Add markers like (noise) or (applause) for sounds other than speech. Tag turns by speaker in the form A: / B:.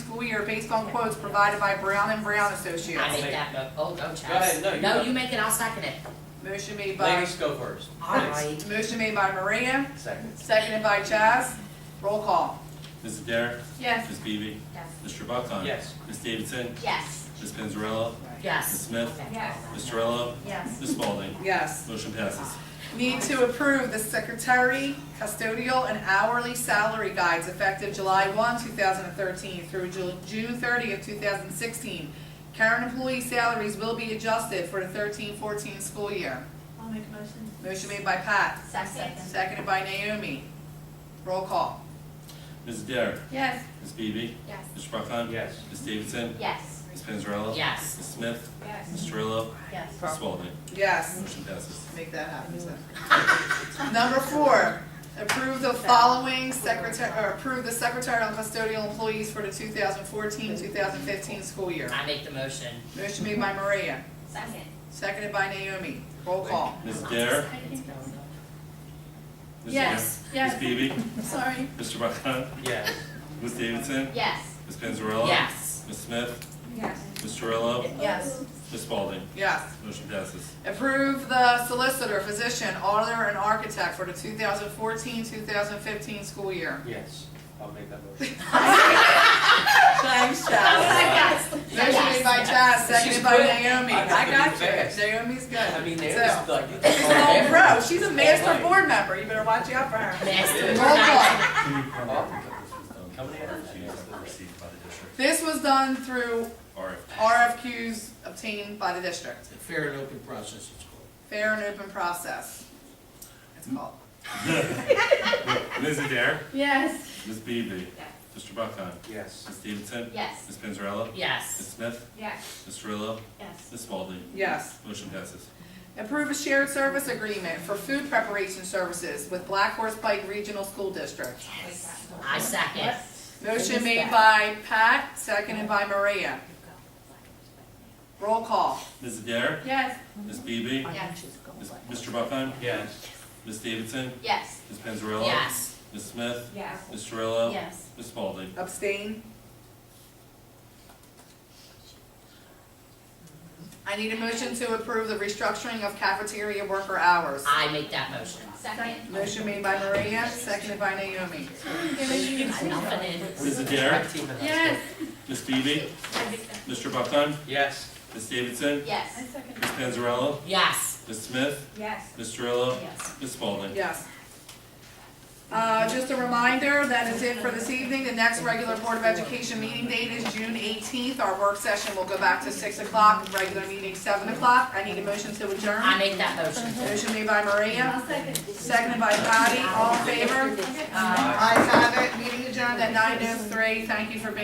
A: we are based on quotes provided by Brown and Brown
B: I
A: Associates.
B: make that mo, oh, go Chaz.
C: ahead, no, you go.
B: you make it, I'll second it.
A: Motion made by,
C: Ladies go first.
B: Alright.
A: motion made by Maria,
C: Second.
A: seconded by Chaz. Roll call.
D: Mrs. Garrett?
A: Yes.
D: Ms. Beebe?
B: Yes.
D: Mr. Buckon?
C: Yes.
D: Ms. Davidson?
B: Yes.
D: Ms. Panzarella? Ms.
B: Yes.
D: Smith? Ms. Terrell?
E: Yes.
D: Ms. Spalding?
A: Yes.
D: Motion passes.
A: Need to approve the secretary, custodial, and hourly salary guides effective July 1, 2013 through Ju- June 30 of 2016. Current employee salaries will be adjusted for the 13-14 school year.
E: I'll make a motion.
A: Motion made by Pat,
E: Second.
A: seconded by Naomi. Roll call.
D: Mrs. Garrett?
A: Yes.
D: Ms. Beebe?
E: Yes.
D: Mr. Buckon?
C: Yes.
D: Ms. Davidson?
E: Yes.
D: Ms. Panzarella?
B: Yes.
D: Ms. Smith?
E: Yes.
D: Ms. Terrell?
E: Yes.
D: Ms. Spalding?
A: Yes.
D: Motion passes.
A: Make that happen, so. (laughs) Number four, approve the following secretary, or approve the secretarial and custodial employees for the 2014, 2015 school year.
B: I make the motion.
A: Motion made by Maria,
E: Second.
A: seconded by Naomi. Roll call.
D: Mrs. Garrett? Ms. Garrett? Ms. Beebe?
A: Sorry.
D: Mr. Buckon?
C: Yes.
D: Ms. Davidson?
E: Yes.
D: Ms.
B: (laughs)
D: Panzarella?
B: Yes.
D: Ms. Smith?
E: Yes.
D: Ms. Terrell?
A: Yes.
D: Ms. Spalding?
A: Yes.
D: Motion passes.
A: Approve the solicitor, physician, auditor, and architect for the 2014, 2015 school year.
C: Yes. I'll make that motion.
A: Thanks, Chaz. Motion made by Chaz, seconded
C: She's
A: by
C: good.
A: Naomi.
C: I
A: I
C: gotta
A: got
C: be fast.
A: you. Naomi's good.
C: (laughs) I mean,
A: So-
C: they're
A: (laughs)
C: just like.
A: She's an old pro. Oh, She's a master board member. You better watch out for her.
B: Master.
A: Roll call.
C: Coming in.
D: Received by the district.
A: This was done through
D: RFP.
A: RFQs obtained by the district.
F: Fair and open process, it's called.
A: Fair and open process. It's called.
D: Ms. Adair,
E: Yes.
D: Ms. Beebe, Mr. Buckheim,
C: Yes.
D: Ms. Davidson,
E: Yes.
D: Ms. Panzarella, Ms.
B: Yes.
D: Smith,
E: Yes.
D: Ms. Rillo,
E: Yes.
D: Ms. Spalding.
A: Yes.
D: Motion passes.
A: Approve a shared service agreement for food preparation services with Black Horse Pike Regional School District.
B: I second.
A: Motion made by Pat, seconded by Maria. Roll call.
D: Ms. Adair,
A: Yes.
D: Ms. Beebe,
E: Yes.
D: Ms. Mr. Buckheim,
C: Yes.
D: Ms. Davidson,
E: Yes.
D: Ms. Panzarella,
B: Yes.
D: Ms. Smith,
E: Yes.
D: Ms. Rillo,
E: Yes.
D: Ms. Spalding.
A: Abstain. I need a motion to approve the restructuring of cafeteria worker hours.
B: I make that motion.
E: Second.
A: Motion made by Maria, seconded by Naomi.
B: Nothing in.
D: Ms. Adair,
E: Yes.
D: Ms. Beebe, Mr. Buckheim,
C: Yes.
D: Ms. Davidson,
E: Yes.
D: Ms. Panzarella,
B: Yes.
D: Ms. Smith,
E: Yes.
D: Ms. Rillo,
B: Yes.
D: Ms. Spalding.
A: Yes. Uh, just a reminder, that is it for this evening. The next regular Board of Education meeting date is June eighteenth. Our work session will go back to six o'clock, regular meeting seven o'clock. I need a motion to
B: I
A: adjourn.
B: make that motion.
A: Motion made by Maria,
E: second.
A: seconded by Patty. All in favor?
B: Aye.
A: Ayes have it, meeting adjourned at nine oh three. Thank you for being